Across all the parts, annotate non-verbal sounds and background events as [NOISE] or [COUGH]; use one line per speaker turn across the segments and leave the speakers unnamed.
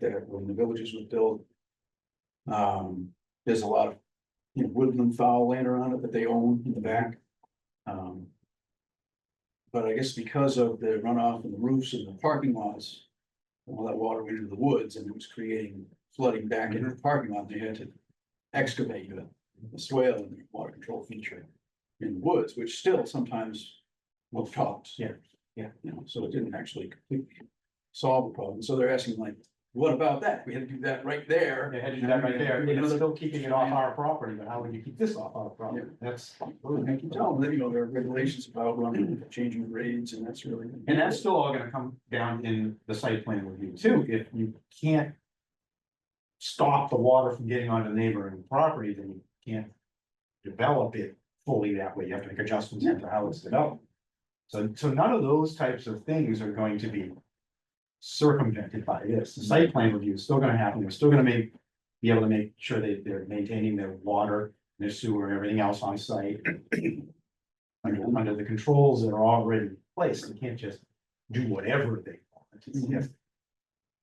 that when the villages was built. Um, there's a lot of, you know, woodland foul land around it that they own in the back. Um. But I guess because of the runoff and the roofs and the parking lots. All that water went into the woods and it was creating flooding back into the parking lot, they had to excavate the the swale and the water control feature. In the woods, which still sometimes will tops.
Yeah, yeah.
You know, so it didn't actually completely solve the problem, so they're asking like, what about that? We had to do that right there.
They had to do that right there, and it's still keeping it off our property, but how would you keep this off our property? That's.
I can tell them, that, you know, there are regulations about running, changing grades and that's really.
And that's still all gonna come down in the site plan review too, if you can't. Stop the water from getting onto neighboring property, then you can't. Develop it fully that way, you have to make adjustments to how it's developed. So, so none of those types of things are going to be. Circumvented by this, the site plan review is still gonna happen, they're still gonna make. Be able to make sure that they're maintaining their water, their sewer, and everything else on site under, under the controls that are already in place, they can't just do whatever they want. It's- yes.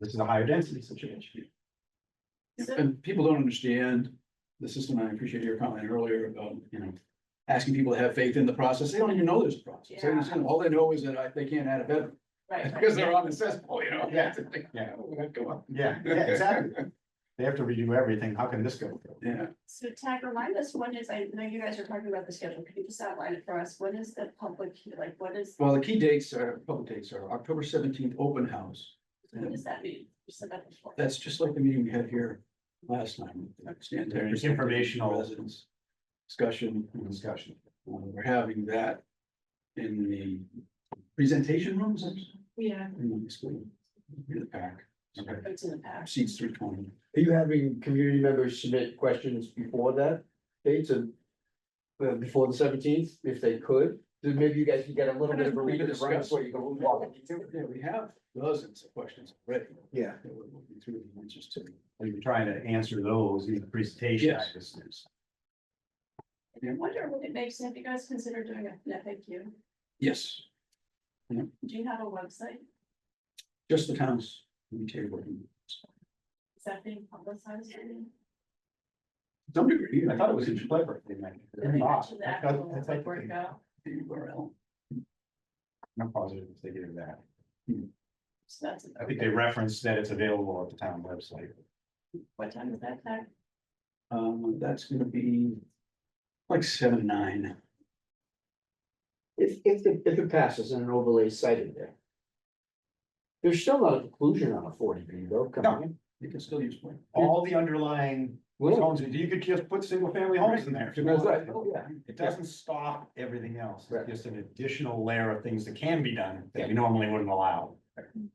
This is a higher density situation.
And people don't understand the system. I appreciate your comment earlier about, you know, asking people to have faith in the process. They don't even know there's a process. They just- All they know is that I- they can't add a bedroom [LAUGHS]
Right. right.
because they're on the cesspool, you know? [LAUGHS] oh,
Yeah, yeah.
Go on. [LAUGHS]
Yeah, yeah, exactly. [LAUGHS] They have to redo everything, how can this go?
Yeah,
So Tag, remind us, when is, I know you guys are talking about the schedule, can you just outline it for us? When is the public, like, what is,
well, the key dates are, public dates are October seventeenth, open house.
what does that mean? You said that before.
That's just like the meeting we had here last time. Stand there.
It's informational.
Residents. Discussion.
Discussion.
Um, We're having that in the presentation rooms,
Yeah,
in the school, in the pack.
Okay.
it's in the past.
Seats three twenty.
Are you having community members submit questions before that date to? uh, before the seventeenth, if they could, then maybe you guys can get a little bit of a read of the room before you go. walk into it.
Yeah, we have dozens of questions already.
Yeah.
that we're looking through the answers to. I
We're trying to answer those in the presentation.
Yes.
I just- it's-
I
mean,
wonder would it make sense, have you guys consider doing an FAQ?
Yes,
Do you have a website?
just the towns. we take working.
Is that being publicized? I
to Some degree.
I thought it was in clever. they might- Ah, I thought-
To the
I thought-
actual
I
like,
thought they-
workout,
The URL.
I'm positive if they did that.
so that's,
I think they referenced that it's available at the town website.
what time is that, Tag?
Um, that's gonna be like seven, nine.
If, if, it- if it passes and an overlay cited there. There's still not a conclusion on a forty B though,
No.
coming in.
You can still use one.
All the underlying
Well,
homes, you could just put single family homes in there. if you
that's right.
wanted.
Oh, yeah.
It doesn't stop everything else,
Right.
it's just an additional layer of things that can be done that we normally wouldn't allow.
And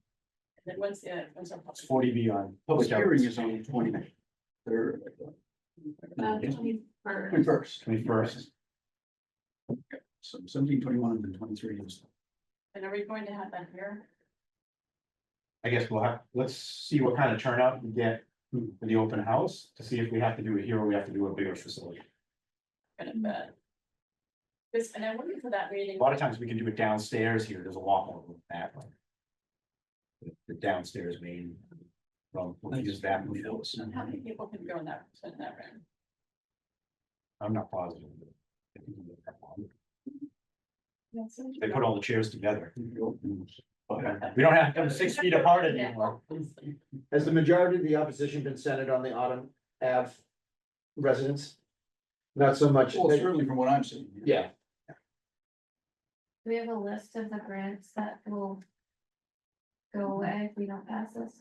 then once, yeah, once our
It's
public.
forty B on.
Public hearing Oh, is on the twenty. Third.
Uh, twenty-first.
Twenty first.
Twenty first,
So seventeen, twenty one, and then twenty three is.
And are we going to have that here?
I guess we'll have, let's see what kind of turnout we get for the open house to see if we have to do it here or we have to do a bigger facility.
Kind of bad. uh, This, and I wonder for that
A
meeting,
lot of times we can do it downstairs here, there's a lot more room that way. The- The downstairs main. Well, we'll use that,
Family house.
how many people can go in that, in that room?
I'm not positive. but I think we can get that one.
That's so
They put all the chairs together,
But
we don't have them six feet apart anymore.
Has the majority of the opposition been centered on the Autumn Ave residents? Not so much.
Well, certainly from what I'm seeing.
Yeah,
Do we have a list of the grants that will go away if we don't pass this?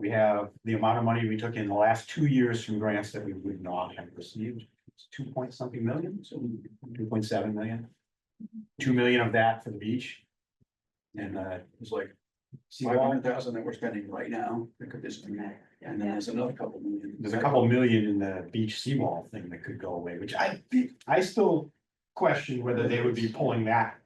We have the amount of money we took in the last two years from grants that we would not have received, it's two point something million,
So we-
two point seven million. Two million of that for the beach. And uh,
It's like five
seawall.
hundred thousand that we're spending right now, that could just be, and then there's another couple million.
there's a couple million in the beach seawall thing that could go away, which I think, I still question whether they would be pulling that.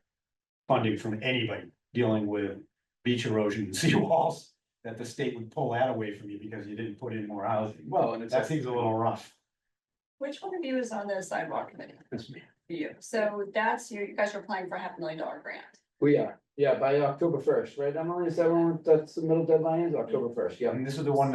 Funding from anybody dealing with beach erosion and [LAUGHS] seawalls, that the state would pull that away from you because you didn't put in more housing.
Well, and it's.
That seems a little rough.
Which one of you is on the sidewalk committee?
That's me.
You, so that's, you, you guys are applying for a half million dollar grant.
we are. Yeah, by October first, right? Emily, is that when that's the middle deadline is October first? Yeah.
And this is the one